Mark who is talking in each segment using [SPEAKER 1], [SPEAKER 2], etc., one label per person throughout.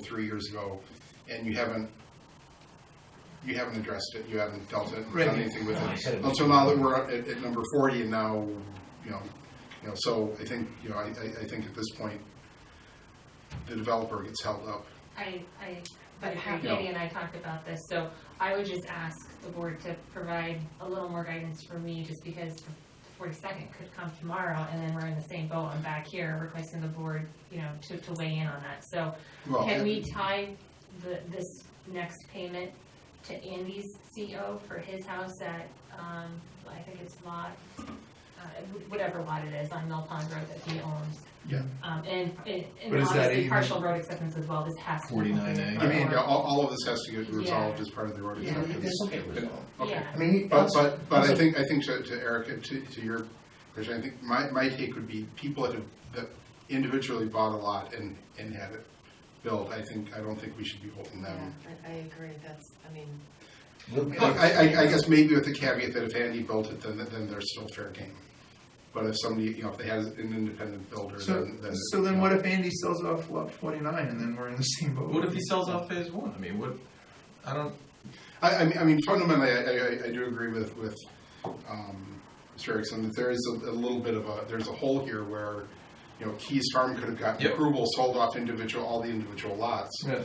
[SPEAKER 1] three years ago, and you haven't, you haven't addressed it, you haven't dealt it,
[SPEAKER 2] Right.
[SPEAKER 1] done anything with
[SPEAKER 2] No, I said
[SPEAKER 1] it.
[SPEAKER 2] it.
[SPEAKER 1] Until now that we're at, at number forty and now, you know, you know, so I think, you know, I, I, I think at this point, the developer gets held up.
[SPEAKER 3] I, I, but
[SPEAKER 4] how-
[SPEAKER 3] Katie and I talked about this, so I would just ask the board to provide a little more guidance for me, just because the forty-second could come tomorrow, and then we're in the same boat, I'm back here requesting the board, you know, to, to weigh in on that, so
[SPEAKER 1] Well,
[SPEAKER 3] can we tie the, this next payment to Andy's CO for his house at, um, I think it's lot, uh, whatever lot it is on Mill Pond Road that he owns?
[SPEAKER 1] Yeah.
[SPEAKER 3] Um, and, and and
[SPEAKER 2] But is that
[SPEAKER 3] obviously
[SPEAKER 2] even-
[SPEAKER 3] partial road acceptance as well, this has to. be
[SPEAKER 2] 49A?
[SPEAKER 1] I mean,
[SPEAKER 3] before-
[SPEAKER 1] yeah, all, all of this has to get
[SPEAKER 3] Yeah.
[SPEAKER 1] resolved as part of the road
[SPEAKER 3] Yeah.
[SPEAKER 1] acceptance.
[SPEAKER 2] It's okay with all.
[SPEAKER 1] Okay.
[SPEAKER 3] Yeah,
[SPEAKER 2] I mean,
[SPEAKER 1] But,
[SPEAKER 2] also-
[SPEAKER 1] but, but I
[SPEAKER 2] also-
[SPEAKER 1] think, I think to, to Erica, to, to your question, I think my, my take would be people that have, that individually bought a lot and, and had it built, I think, I don't think we should be holding
[SPEAKER 4] Yeah,
[SPEAKER 1] them.
[SPEAKER 4] I, I agree, that's, I mean,
[SPEAKER 2] Look,
[SPEAKER 1] I, I, I guess maybe with the caveat that if Andy built it, then, then they're still fair game. But if somebody, you know, if they had an independent builder,
[SPEAKER 5] So,
[SPEAKER 1] then, then.
[SPEAKER 5] so then what if Andy sells off lot forty-nine and then we're in the same boat?
[SPEAKER 6] What if he sells off phase one? I mean, what? I don't.
[SPEAKER 1] I, I mean, I mean fundamentally, I, I, I do agree with, with, um, Mr. Erickson, that there is a, a little bit of a, there's a hole here where, you know, Keys Farm could have gotten
[SPEAKER 6] Yep.
[SPEAKER 1] approval, sold off individual, all the individual lots.
[SPEAKER 6] Yeah.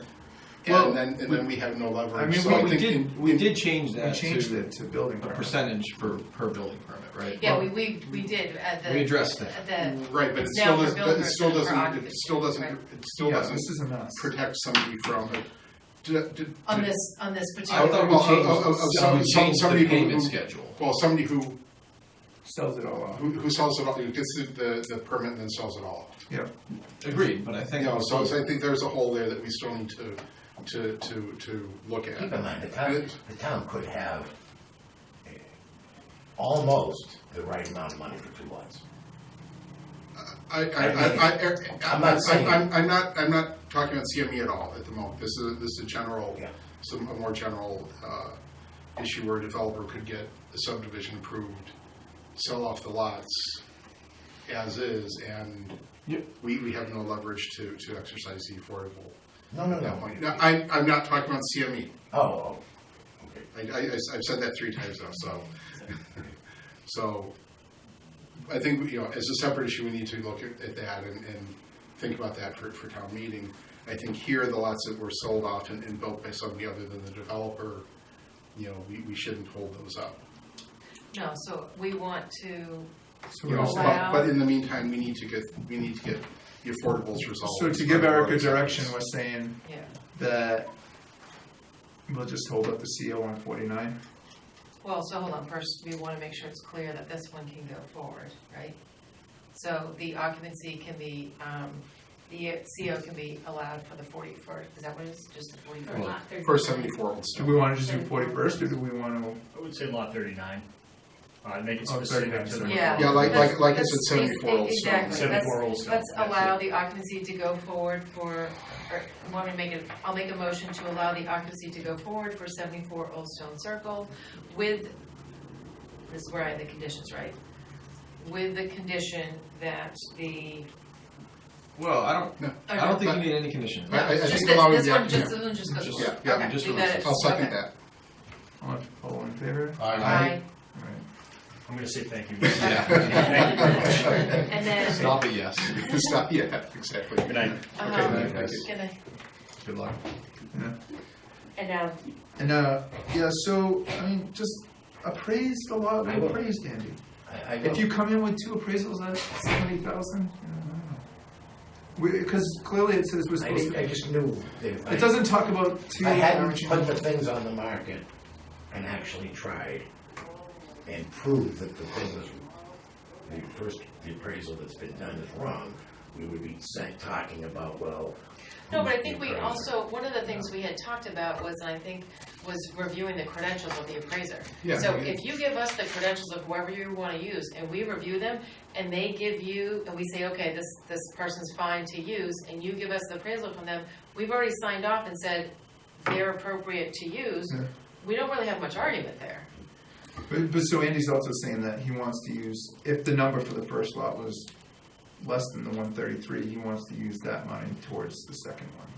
[SPEAKER 5] Well,
[SPEAKER 1] And then, and then we have no
[SPEAKER 5] I
[SPEAKER 1] leverage,
[SPEAKER 5] mean,
[SPEAKER 1] so
[SPEAKER 5] we-
[SPEAKER 1] I
[SPEAKER 6] we
[SPEAKER 1] think
[SPEAKER 6] did.
[SPEAKER 1] in-
[SPEAKER 6] we
[SPEAKER 1] in-
[SPEAKER 6] did change
[SPEAKER 5] We
[SPEAKER 6] that
[SPEAKER 5] changed
[SPEAKER 6] to
[SPEAKER 5] it to building
[SPEAKER 6] a
[SPEAKER 5] permit.
[SPEAKER 6] percentage for per building permit, right?
[SPEAKER 4] yeah, we, we, we did, uh, the.
[SPEAKER 6] we addressed that.
[SPEAKER 4] at The,
[SPEAKER 1] Right, but it
[SPEAKER 4] It's
[SPEAKER 1] still
[SPEAKER 4] now for
[SPEAKER 1] doesn't, but it
[SPEAKER 4] builders
[SPEAKER 1] still
[SPEAKER 4] and for
[SPEAKER 1] doesn't, it
[SPEAKER 4] occupants,
[SPEAKER 1] still doesn't,
[SPEAKER 4] right.
[SPEAKER 1] it still
[SPEAKER 5] Yeah, this
[SPEAKER 1] doesn't
[SPEAKER 5] isn't us.
[SPEAKER 1] protect somebody from, did, did.
[SPEAKER 4] on
[SPEAKER 1] did-
[SPEAKER 4] this, on this
[SPEAKER 6] I
[SPEAKER 4] particular.
[SPEAKER 6] thought we
[SPEAKER 1] Well,
[SPEAKER 6] changed,
[SPEAKER 1] oh, oh, oh,
[SPEAKER 6] so
[SPEAKER 1] some-
[SPEAKER 6] we
[SPEAKER 1] some-
[SPEAKER 6] changed
[SPEAKER 1] some
[SPEAKER 6] the
[SPEAKER 1] people
[SPEAKER 6] payment
[SPEAKER 1] who-
[SPEAKER 6] schedule.
[SPEAKER 1] Well, somebody who,
[SPEAKER 5] Sells it all off.
[SPEAKER 1] who who sells it all, who gets the- the, the permit and then sells it all.
[SPEAKER 6] Agreed, but I think
[SPEAKER 1] No, so so I think there's a hole there that we still need to, to, to, to look at.
[SPEAKER 7] Keep in mind, the town,
[SPEAKER 1] Good.
[SPEAKER 7] the town could have eh, almost the right amount of money for two lots.
[SPEAKER 1] I, I, I, I, Eric,
[SPEAKER 7] I'm
[SPEAKER 1] I-
[SPEAKER 7] not
[SPEAKER 1] I'm,
[SPEAKER 7] saying-
[SPEAKER 1] I'm, I'm not, I'm not talking about CME at all at the moment. This is, this is a general,
[SPEAKER 7] Yeah.
[SPEAKER 1] some, a more general, uh, issue where a developer could get a subdivision approved, sell off the lots as is, and
[SPEAKER 6] Yep.
[SPEAKER 1] we, we have no leverage to, to exercise the affordable
[SPEAKER 7] No, no,
[SPEAKER 1] at that
[SPEAKER 7] no.
[SPEAKER 1] point. Now, I, I'm not talking about E. CME.
[SPEAKER 7] Oh, oh, okay.
[SPEAKER 1] I, I, have said that three times now, so, so, I think, you know, as a separate issue, we need to look at, at that and, and think about that for, for town meeting. I think here, the lots that were sold off and, and built by somebody other than the developer, you know, we, we shouldn't hold those up.
[SPEAKER 4] No, so we want to,
[SPEAKER 5] So
[SPEAKER 1] You
[SPEAKER 5] we're
[SPEAKER 1] know,
[SPEAKER 5] just-
[SPEAKER 4] Wow.
[SPEAKER 1] but, but in the meantime, we need to get, we need to get the affordables resolved.
[SPEAKER 5] So to give Erica direction, we're saying
[SPEAKER 4] yeah,
[SPEAKER 5] that we'll just hold up the CO on forty-nine.
[SPEAKER 4] well, so hold on, first, we wanna make sure it's clear that this one can go forward, right? So the occupancy can be, um, the CO can be allowed for the forty first, is that what it is, just the forty
[SPEAKER 3] for
[SPEAKER 4] first?
[SPEAKER 3] lot thirty-nine.
[SPEAKER 1] For seventy-four Old
[SPEAKER 5] Do
[SPEAKER 1] Stone.
[SPEAKER 5] we wanna just do forty-first or do we wanna,
[SPEAKER 8] I would say lot thirty-nine. Uh, make it
[SPEAKER 5] Oh,
[SPEAKER 8] specific
[SPEAKER 5] 39,
[SPEAKER 8] to the.
[SPEAKER 5] sorry.
[SPEAKER 4] Yeah.
[SPEAKER 1] Yeah, like, like, like I
[SPEAKER 4] That's-
[SPEAKER 1] said, seventy-four Old Stone.
[SPEAKER 4] Exactly, that's,
[SPEAKER 8] Seventy-four Old Stone.
[SPEAKER 4] Let's
[SPEAKER 8] That's it.
[SPEAKER 4] allow the occupancy to go forward for, or, want to make it, I'll make a motion to allow the occupancy to go forward for seventy-four Old Stone Circle with, this is where I had the conditions, right? With the condition that the,
[SPEAKER 6] Well, I don't. I don't think you need any conditions.
[SPEAKER 1] I- I- I
[SPEAKER 4] Just
[SPEAKER 1] think
[SPEAKER 4] this-
[SPEAKER 1] allowing
[SPEAKER 4] This
[SPEAKER 1] the
[SPEAKER 4] one,
[SPEAKER 1] occup-
[SPEAKER 4] just, this one just goes
[SPEAKER 6] Just-
[SPEAKER 4] forward.
[SPEAKER 1] yeah, yeah,
[SPEAKER 4] Okay,
[SPEAKER 6] just
[SPEAKER 4] leave that
[SPEAKER 6] release.
[SPEAKER 4] as-
[SPEAKER 1] I'll second
[SPEAKER 4] okay.
[SPEAKER 1] that.
[SPEAKER 5] all in- all in favor?
[SPEAKER 7] Uh,
[SPEAKER 4] Aye.
[SPEAKER 5] All right.
[SPEAKER 8] I'm gonna say thank you.
[SPEAKER 6] Yeah.
[SPEAKER 8] Thank you very much.
[SPEAKER 4] And then,
[SPEAKER 6] Stop it. Yes.
[SPEAKER 1] Stop, yeah, exactly.
[SPEAKER 8] Good night.
[SPEAKER 4] um,
[SPEAKER 1] Okay, thank you.
[SPEAKER 4] can I-
[SPEAKER 6] Good luck.
[SPEAKER 4] and now,
[SPEAKER 5] And, uh, yeah, so, I mean, just appraise the lot,
[SPEAKER 7] I
[SPEAKER 5] we
[SPEAKER 7] will.
[SPEAKER 5] appraised Andy.
[SPEAKER 7] I, I
[SPEAKER 5] If
[SPEAKER 7] don't,
[SPEAKER 5] you come in with two appraisals at seventy thousand, because clearly it says we're
[SPEAKER 7] I,
[SPEAKER 5] supposed
[SPEAKER 7] didn't-
[SPEAKER 5] to,
[SPEAKER 7] I just knew that if
[SPEAKER 5] it
[SPEAKER 7] I,
[SPEAKER 5] doesn't talk about two.
[SPEAKER 7] if I hadn't
[SPEAKER 5] average
[SPEAKER 7] put
[SPEAKER 5] units.
[SPEAKER 7] the things on the market and actually tried and proved that the thing was, the first appraisal that's been done is wrong, we would be sat talking about, well.
[SPEAKER 4] No,
[SPEAKER 7] who's
[SPEAKER 4] but I
[SPEAKER 7] the
[SPEAKER 4] think we
[SPEAKER 7] appraiser?
[SPEAKER 4] also, one of the things we had talked about was, and I think, was reviewing the credentials of the appraiser.
[SPEAKER 1] Yeah.
[SPEAKER 4] So if you give us the credentials of whoever you wanna use, and we review them, and they give you, and we say, okay, this, this person's fine to use, and you give us the appraisal from them, we've already signed off and said they're appropriate to use,
[SPEAKER 5] Yeah.
[SPEAKER 4] we don't really have much argument there.
[SPEAKER 5] But, but so Andy's also saying that he wants to use, if the number for the first lot was less than the one thirty-three, he wants to use that money towards the second one.